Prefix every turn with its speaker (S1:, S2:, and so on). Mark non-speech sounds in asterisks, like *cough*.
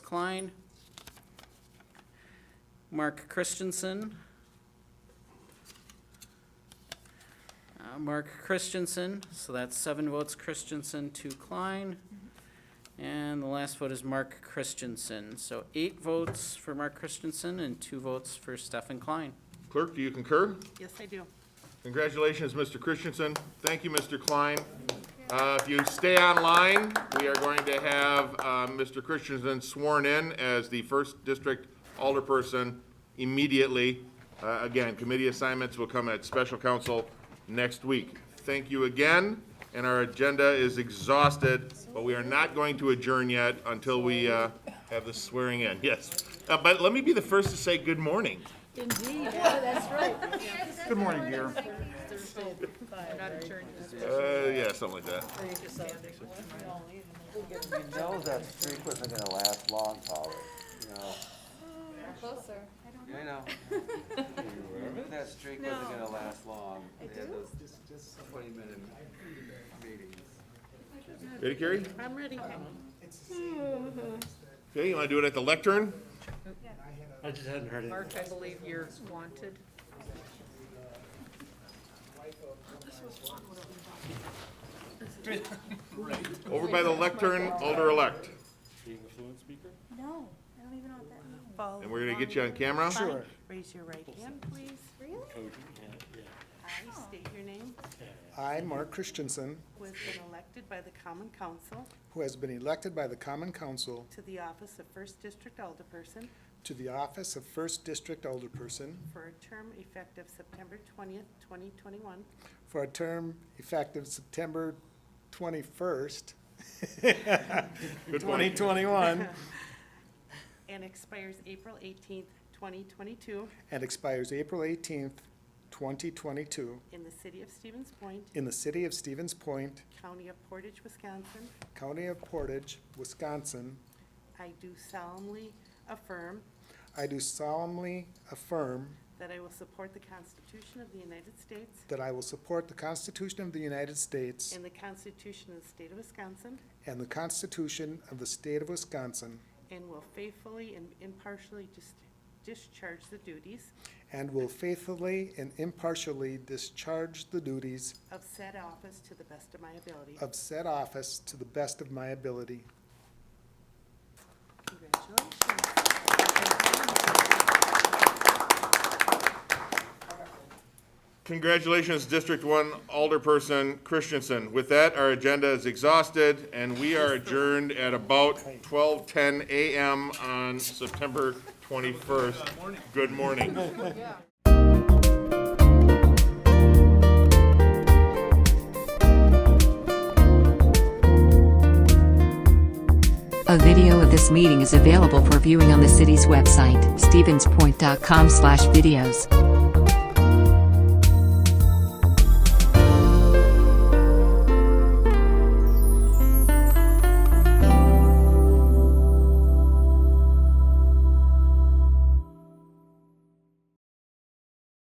S1: Klein. Mark Christensen. Uh, Mark Christensen, so that's seven votes Christensen, two Klein. And the last vote is Mark Christensen. So eight votes for Mark Christensen and two votes for Stefan Klein.
S2: Clerk, do you concur?
S3: Yes, I do.
S2: Congratulations, Mr. Christensen. Thank you, Mr. Klein. Uh, If you stay online, we are going to have uh, Mr. Christensen sworn in as the first district alderperson immediately. Uh, Again, committee assignments will come at special council next week. Thank you again, and our agenda is exhausted, but we are not going to adjourn yet until we uh, have the swearing in, yes. Uh, But let me be the first to say good morning.
S4: Indeed, yeah, that's right.
S5: Good morning, dear.
S2: Uh, Yeah, something like that.
S5: You know that streak wasn't gonna last long, Paul, you know.
S6: Closer.
S5: I know. That streak wasn't gonna last long. I do. Just, just twenty minute meetings.
S2: Ready, Carrie?
S3: I'm ready.
S2: Okay, you want to do it at the lectern?
S7: I just hadn't heard it.
S3: Mark, I believe you're wanted.
S2: Over by the lectern, Alder-elect.
S7: Being a fluent speaker?
S6: No, I don't even know what that means.
S3: Follow
S2: And we're going to get you on camera?
S3: the line. Raise your right hand, please.
S6: Really?
S7: Cogent, yeah,
S3: I state your name,
S8: I, Mark Christensen,
S3: who has been elected by the common council
S8: who has been elected by the Common Council
S3: to the office of First District Alderperson
S8: to the office of First District Alderperson
S3: for a term effective September twentieth, twenty twenty-one,
S8: for a term effective September 21st,
S2: Good morning.
S8: 2021,
S3: *laughs* and expires April eighteenth, twenty twenty-two,
S8: and expires April 18th, 2022,
S3: in the city of Stevens Point,
S8: in the city of Stevens Point,
S3: county of Portage, Wisconsin.
S8: county of Portage, Wisconsin.
S3: I do solemnly affirm
S8: I do solemnly affirm
S3: that I will support the Constitution of the United States
S8: that I will support the Constitution of the United States
S3: And the Constitution of the State of Wisconsin.
S8: and the Constitution of the state of Wisconsin,
S3: And will faithfully and impartially dis- discharge the duties
S8: and will faithfully and impartially discharge the duties
S3: of said office to the best of my ability.
S8: of said office to the best of my ability.
S3: Congratulations.
S2: Congratulations, District One Alderperson Christensen. With that, our agenda is exhausted, and we are adjourned at about 12:10 a.m. on September 21st. Good morning.
S9: A video of this meeting is available for viewing on the city's website, stevenspoint.com/videos.